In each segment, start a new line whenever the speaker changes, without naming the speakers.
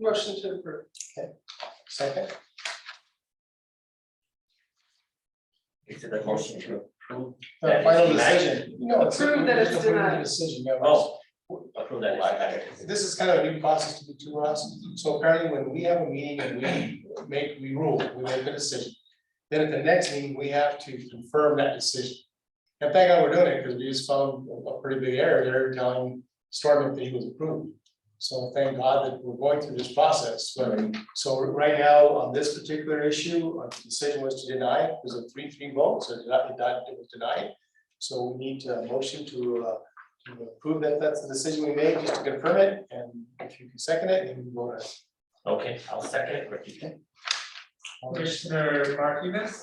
Motion to approve.
Second,
Is it a motion to approve?
the
That is
final
denied.
decision. No, it's.
uh,
we
Prove that it's
just approve the
denied.
Decision, no. it's-
Oh, approve that. as denied.
This is kind of a new process to, to us, so apparently when we have a meeting and we make, we rule, we make a decision. Then at the next meeting, we have to confirm that decision. And thank God we're doing it, because we just found a- a pretty big error there telling Storm that he was approved. So thank God that we're going through this process, but, so right now, on this particular issue, uh, the decision was to deny, it was a three, three vote, so it died- it died- it was denied. So we need a motion to, uh, to approve that that's the decision we made, just to confirm it, and if you can second it, then we vote on it.
Okay, I'll second it, Ricky.
Commissioner Martinez,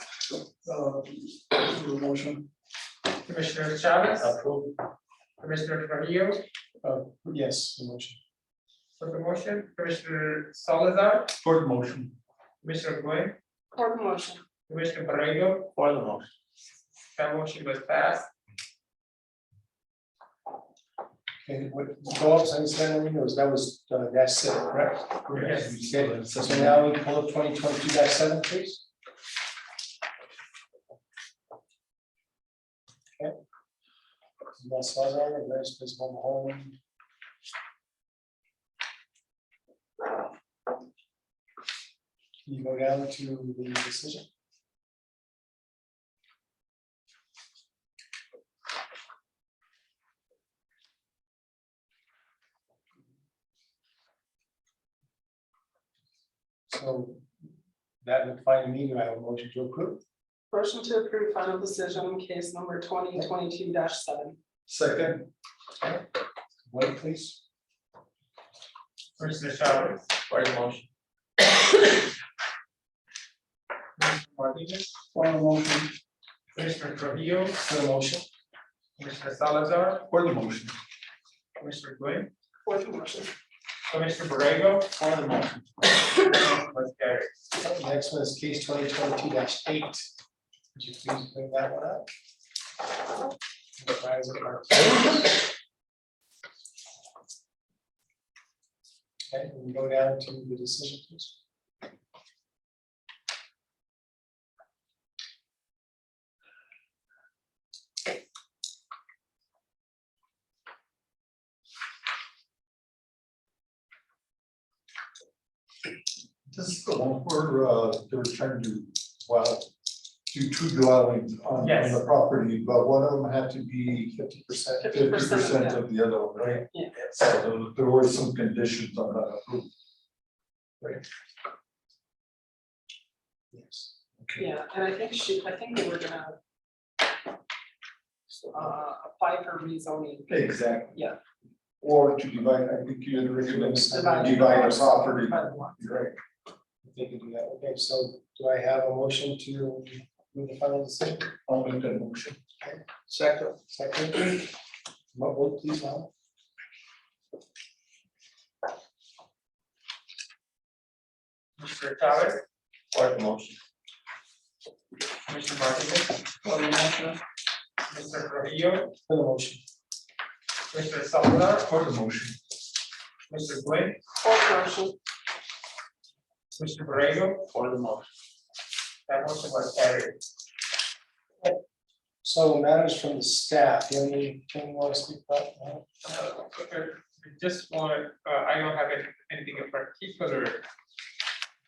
Uh, motion.
Commissioner Chavez,
Approve,
Commissioner Trujillo
Uh, yes, the motion.
for the motion, Commissioner Salazar.
For the motion.
Commissioner Guen,
For the motion.
Commissioner Barrego,
For the motion.
that motion was passed.
Okay, what, go up, sign, sign, windows, that was, uh, dash seven, correct?
Correct.
Okay, so now we pull up twenty twenty-two dash seven, please. Okay. Las Salazar, Advanced Visible Home. Can you go down to the decision? So that would find me, do I have a motion to approve?
Motion to approve final decision in case number twenty twenty-two seven.
Second. Wait, please.
Commissioner Chavez,
for the motion,
Commissioner Martinez,
For the motion.
Commissioner Trujillo,
For the motion.
Commissioner Salazar,
For the motion.
Commissioner Guen,
For the motion.
Commissioner Barrego,
For the motion.
was carried.
Next one is case twenty twenty-two eight. Would you please bring that one up? Okay, we can go down to the decision, please.
This is the one where uh they're trying to, well, do two dwellings on on
Yes.
the property, but one of them had to be fifty percent, fifty
50%,
percent of the other one, right?
Yeah.
So there- there were some conditions on that approval.
Yes.
Yeah, and I think she, I think they were gonna uh, apply for rezoning.
Exactly.
Yeah.
Or to divide, I think you had recommended to
Divide.
divide a property,
By the lot.
right?
If they can do that, okay, so do I have a motion to move the final decision?
I'll make that motion.
Second. Second. Mo- vote please, Alan?
Commissioner Chavez,
for the motion,
Commissioner Martinez, Commissioner Trujillo,
For the motion.
Commissioner Salazar,
For the motion.
Commissioner Guen,
For the motion.
Commissioner Borrego? For the motion. That motion was carried.
So matters from the staff, do you have anything you want to speak about? No?
Uh, okay, I Just want, uh, I don't have any- anything in particular.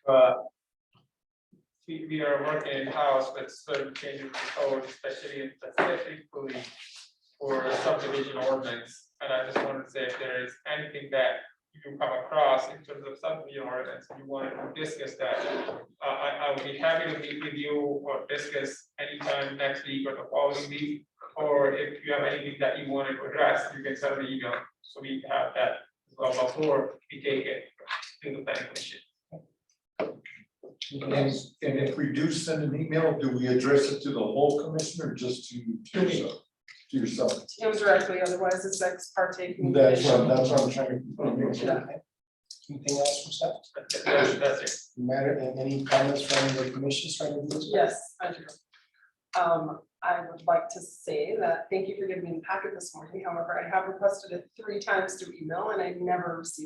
But we, we are working in-house with certain changes in code, especially in specifically for subdivision ordinance. And I just wanted to say if there is anything that you come across in terms of subdivision ordinance, you want to discuss that. Uh, I, I would be happy to meet with you or discuss anytime next week or the following week. Or if you have anything that you want to address, you can send an email, so we have that as well before we take it to the planning commission.
And and if we do send an email, do we address it to the whole commission or just to to
To me.
yourself? To yourself?
Indirectly, otherwise it's ex parte.
That's
communication.
what, that's what I'm trying to.
Okay. Anything else from staff?
That- That's, that's it.
Matter, and any comments from the commission starting with?
Yes, I do. Um, I would like to say that, thank you for giving me the packet this morning, however, I have requested it three times through email and I never received